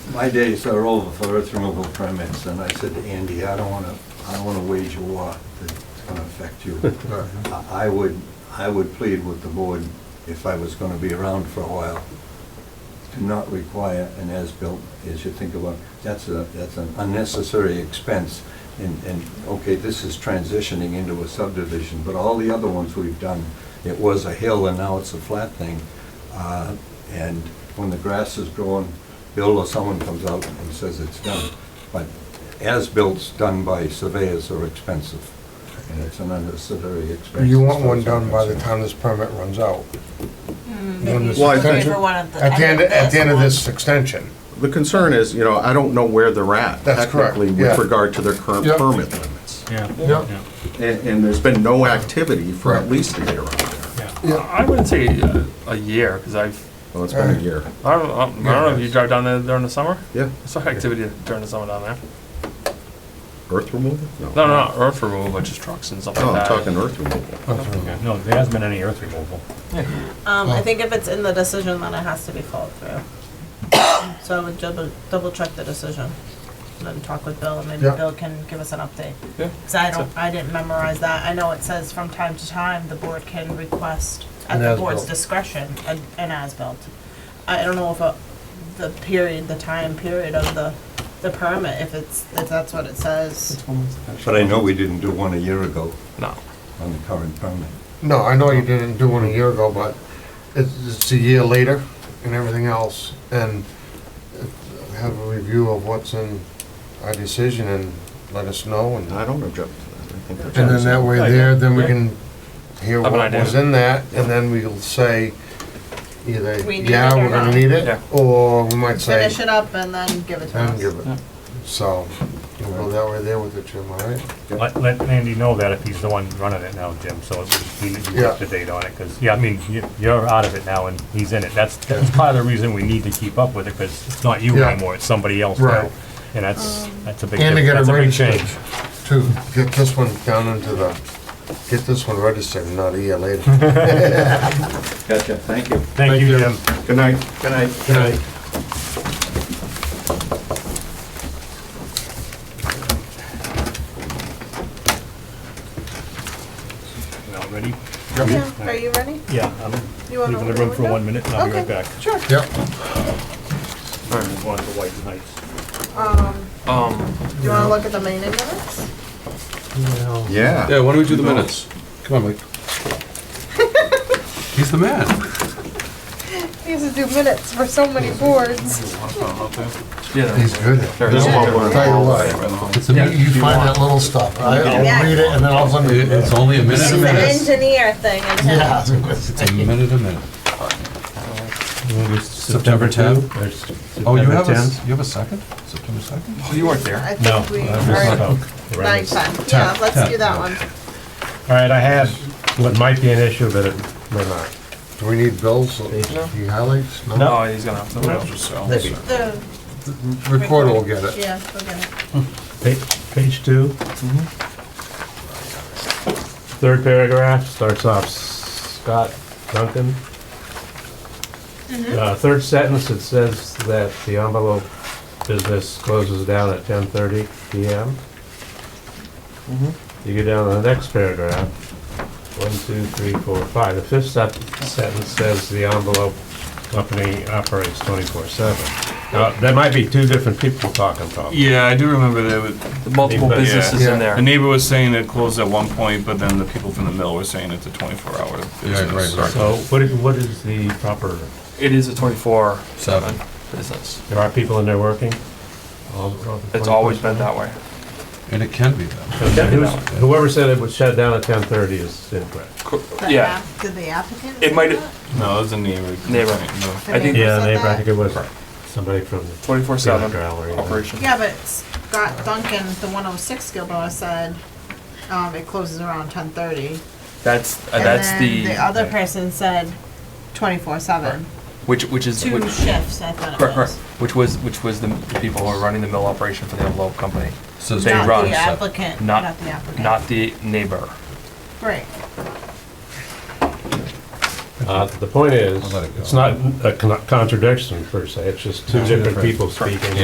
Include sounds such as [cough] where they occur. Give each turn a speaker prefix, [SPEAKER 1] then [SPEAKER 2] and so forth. [SPEAKER 1] my days are over for earth removal permits, and I said to Andy, I don't want to, I don't want to wage a war that's going to affect you. I I would, I would plead with the board, if I was going to be around for a while, to not require an as-built, as you think about, that's a, that's an unnecessary expense. And, and, okay, this is transitioning into a subdivision, but all the other ones we've done, it was a hill and now it's a flat thing. Uh, And when the grass is growing, Bill or someone comes out and says it's done. But as-builts done by surveyors are expensive, and it's an unnecessary expense.
[SPEAKER 2] You want one done by the time this permit runs out. One this
[SPEAKER 3] Well, I
[SPEAKER 2] extension.
[SPEAKER 3] think-
[SPEAKER 2] At the end, at the end of this extension.
[SPEAKER 3] The concern is, you know, I don't know where they're at
[SPEAKER 2] That's correct,
[SPEAKER 3] technically
[SPEAKER 2] yeah.
[SPEAKER 3] with regard to their current
[SPEAKER 2] Yep.
[SPEAKER 3] permit limits.
[SPEAKER 4] Yeah.
[SPEAKER 2] Yep.
[SPEAKER 4] yeah,
[SPEAKER 3] And, and there's been no activity for at
[SPEAKER 2] Right.
[SPEAKER 3] least a year on there.
[SPEAKER 4] yeah.
[SPEAKER 2] Yeah.
[SPEAKER 4] I I wouldn't say uh, a year, because I've,
[SPEAKER 3] Well, it's been a year.
[SPEAKER 4] I don't, I don't know if you drive down there during the summer?
[SPEAKER 3] Yeah.
[SPEAKER 4] I saw activity during the summer down there.
[SPEAKER 3] Earth removal?
[SPEAKER 4] No, no, not earth removal, but just trucks and stuff
[SPEAKER 3] No, Oh, I'm
[SPEAKER 4] like
[SPEAKER 3] talking
[SPEAKER 4] that.
[SPEAKER 3] earth removal.
[SPEAKER 4] Okay.
[SPEAKER 5] No, there hasn't been any earth removal.
[SPEAKER 6] Um,
[SPEAKER 2] Oh.
[SPEAKER 6] I think if it's in the decision, then it has to be followed through. [coughs] So I would double, double check the decision, and then talk with Bill, and maybe
[SPEAKER 2] Yeah.
[SPEAKER 6] Bill can give us an update.
[SPEAKER 4] Yeah.
[SPEAKER 6] Cause I don't, I didn't memorize that, I know it says from time to time, the board can request, at
[SPEAKER 2] An
[SPEAKER 6] the
[SPEAKER 2] as-built.
[SPEAKER 6] board's discretion, an, an as-built. I don't know if a, the period, the time period of the, the permit, if it's, if that's what it says.
[SPEAKER 1] But I know we didn't do one a year ago
[SPEAKER 4] No.
[SPEAKER 1] on the current permit.
[SPEAKER 2] No, I know you didn't do one a year ago, but it's, it's a year later and everything else. And have a review of what's in our decision and let us know and.
[SPEAKER 3] I don't object to that. I think that's.
[SPEAKER 2] And then that way
[SPEAKER 4] Idea.
[SPEAKER 2] there, then we
[SPEAKER 4] Yeah.
[SPEAKER 2] can hear
[SPEAKER 4] Have
[SPEAKER 2] what
[SPEAKER 4] an idea.
[SPEAKER 2] was in that, and then we'll say either,
[SPEAKER 6] We need
[SPEAKER 2] yeah,
[SPEAKER 6] it or
[SPEAKER 2] we're gonna
[SPEAKER 6] not."
[SPEAKER 2] need
[SPEAKER 4] Yeah.
[SPEAKER 2] it, or we might say,
[SPEAKER 6] Finish it up and then give it to
[SPEAKER 2] then
[SPEAKER 6] us.
[SPEAKER 2] give it. So, we'll go that way there with it, Jim, all right?
[SPEAKER 5] Let, let Andy know that if he's the one running it now, Jim, so we need to
[SPEAKER 2] Yeah.
[SPEAKER 5] get the date on it, because, yeah, I mean, you- you're out of it now and he's in it. That's, that's part of the reason we need to keep up with it, because it's not you
[SPEAKER 2] Yeah.
[SPEAKER 5] anymore, it's somebody else
[SPEAKER 2] Right.
[SPEAKER 5] now. And that's, that's a big,
[SPEAKER 2] And to
[SPEAKER 5] diff-
[SPEAKER 2] get it
[SPEAKER 5] that's a big
[SPEAKER 2] registered,
[SPEAKER 5] change.
[SPEAKER 2] too, get this one down into the, get this one registered, not E a year later.
[SPEAKER 1] Gotcha, thank you.
[SPEAKER 5] Thank you, Jim.
[SPEAKER 3] Good night. Good night.
[SPEAKER 2] Can I-
[SPEAKER 5] Now, ready?
[SPEAKER 6] Yeah, are you ready?
[SPEAKER 5] Yeah, I'm
[SPEAKER 6] You wanna
[SPEAKER 5] leaving the
[SPEAKER 6] open
[SPEAKER 5] room for
[SPEAKER 6] window?
[SPEAKER 5] one minute and I'll be right
[SPEAKER 6] Okay,
[SPEAKER 5] back.
[SPEAKER 6] Sure.
[SPEAKER 2] Yep,
[SPEAKER 5] Just wanted to white nights.
[SPEAKER 6] Um,
[SPEAKER 4] Um,
[SPEAKER 6] do you wanna look at the main index?
[SPEAKER 3] Yeah.
[SPEAKER 7] Yeah, why don't we do the minutes? Come on, Mike. [laughs] He's the man.
[SPEAKER 6] He has to do minutes for so many boards.
[SPEAKER 4] yeah,
[SPEAKER 2] he's good.
[SPEAKER 3] There's one where-
[SPEAKER 2] Tell you what,
[SPEAKER 7] It's a minute.
[SPEAKER 2] you find that little stuff, I- I'll read it, and then all of a
[SPEAKER 7] It-
[SPEAKER 2] sudden.
[SPEAKER 7] It's only a minute
[SPEAKER 6] It's
[SPEAKER 7] a
[SPEAKER 6] an
[SPEAKER 7] minute.
[SPEAKER 6] engineer thing. isn't it?
[SPEAKER 2] Yeah.
[SPEAKER 7] It's a minute a minute. September 10th? Oh, you have a, s- you have a second? September 2nd?
[SPEAKER 4] oh, you weren't there.
[SPEAKER 6] I think we are nine ten. Yeah, let's do that one.
[SPEAKER 8] All right, I had what might be an issue, but it may not.
[SPEAKER 2] Do we need bills, the highlights?
[SPEAKER 4] No, he's gonna have to.
[SPEAKER 6] The- The,
[SPEAKER 2] Recorder will get it.
[SPEAKER 6] yeah, we'll get it.
[SPEAKER 8] Pa- Page two. Third paragraph starts off Scott Duncan. Uh, Third sentence, it says that the envelope business closes down at 10:30 PM. You go down to the next paragraph. One, two, three, four, five. The fifth sep- sentence says the envelope company operates 24/7. Now, there might be two different people talking probably.
[SPEAKER 9] Yeah, I do remember there was,
[SPEAKER 4] The multiple
[SPEAKER 8] Yeah.
[SPEAKER 4] businesses in there.
[SPEAKER 9] the neighbor was saying it closed at one point, but then the people from the mill were saying it's a twenty-four hour business.
[SPEAKER 8] So what is, what is the proper,
[SPEAKER 4] It is a twenty-four
[SPEAKER 7] Seven.
[SPEAKER 4] business.
[SPEAKER 8] there are people in there working? All- all the
[SPEAKER 4] It's always been that way.
[SPEAKER 7] And it can be that.
[SPEAKER 8] Okay, who's- Whoever said it would shut down at ten thirty is incorrect.
[SPEAKER 6] The
[SPEAKER 4] Yeah,
[SPEAKER 6] app- Did the applicant?
[SPEAKER 4] it
[SPEAKER 6] say
[SPEAKER 4] might,
[SPEAKER 6] that?
[SPEAKER 9] No, it was a neighbor.
[SPEAKER 4] Neighbor.
[SPEAKER 9] No.
[SPEAKER 4] I think
[SPEAKER 6] Yeah,
[SPEAKER 8] Yeah,
[SPEAKER 6] said
[SPEAKER 8] they,
[SPEAKER 6] that?
[SPEAKER 8] I think it was somebody from the
[SPEAKER 4] twenty-four
[SPEAKER 8] theater
[SPEAKER 4] seven
[SPEAKER 8] gallery.
[SPEAKER 4] operation.
[SPEAKER 6] Yeah, but Scott Duncan, the one oh six Gilboa said, um, it closes around ten thirty.
[SPEAKER 4] That's, uh, that's
[SPEAKER 6] And then the
[SPEAKER 4] the,
[SPEAKER 6] other person said twenty-four seven,
[SPEAKER 4] which, which is.
[SPEAKER 6] two
[SPEAKER 4] which-
[SPEAKER 6] shifts, I thought it
[SPEAKER 4] Correct, correct.
[SPEAKER 6] was.
[SPEAKER 4] [laughs] Which was, which was the the people who are running the mill operation for the envelope company,
[SPEAKER 7] So it's
[SPEAKER 4] They
[SPEAKER 7] not
[SPEAKER 4] run
[SPEAKER 6] Not the
[SPEAKER 7] seven.
[SPEAKER 6] applicant,
[SPEAKER 4] Not-
[SPEAKER 6] not the applicant.
[SPEAKER 4] not the neighbor.
[SPEAKER 6] Right.
[SPEAKER 8] Uh, the point is,
[SPEAKER 7] I'll let it go.
[SPEAKER 8] it's not a con- contradiction per se, it's just two
[SPEAKER 7] No.
[SPEAKER 8] different people speaking.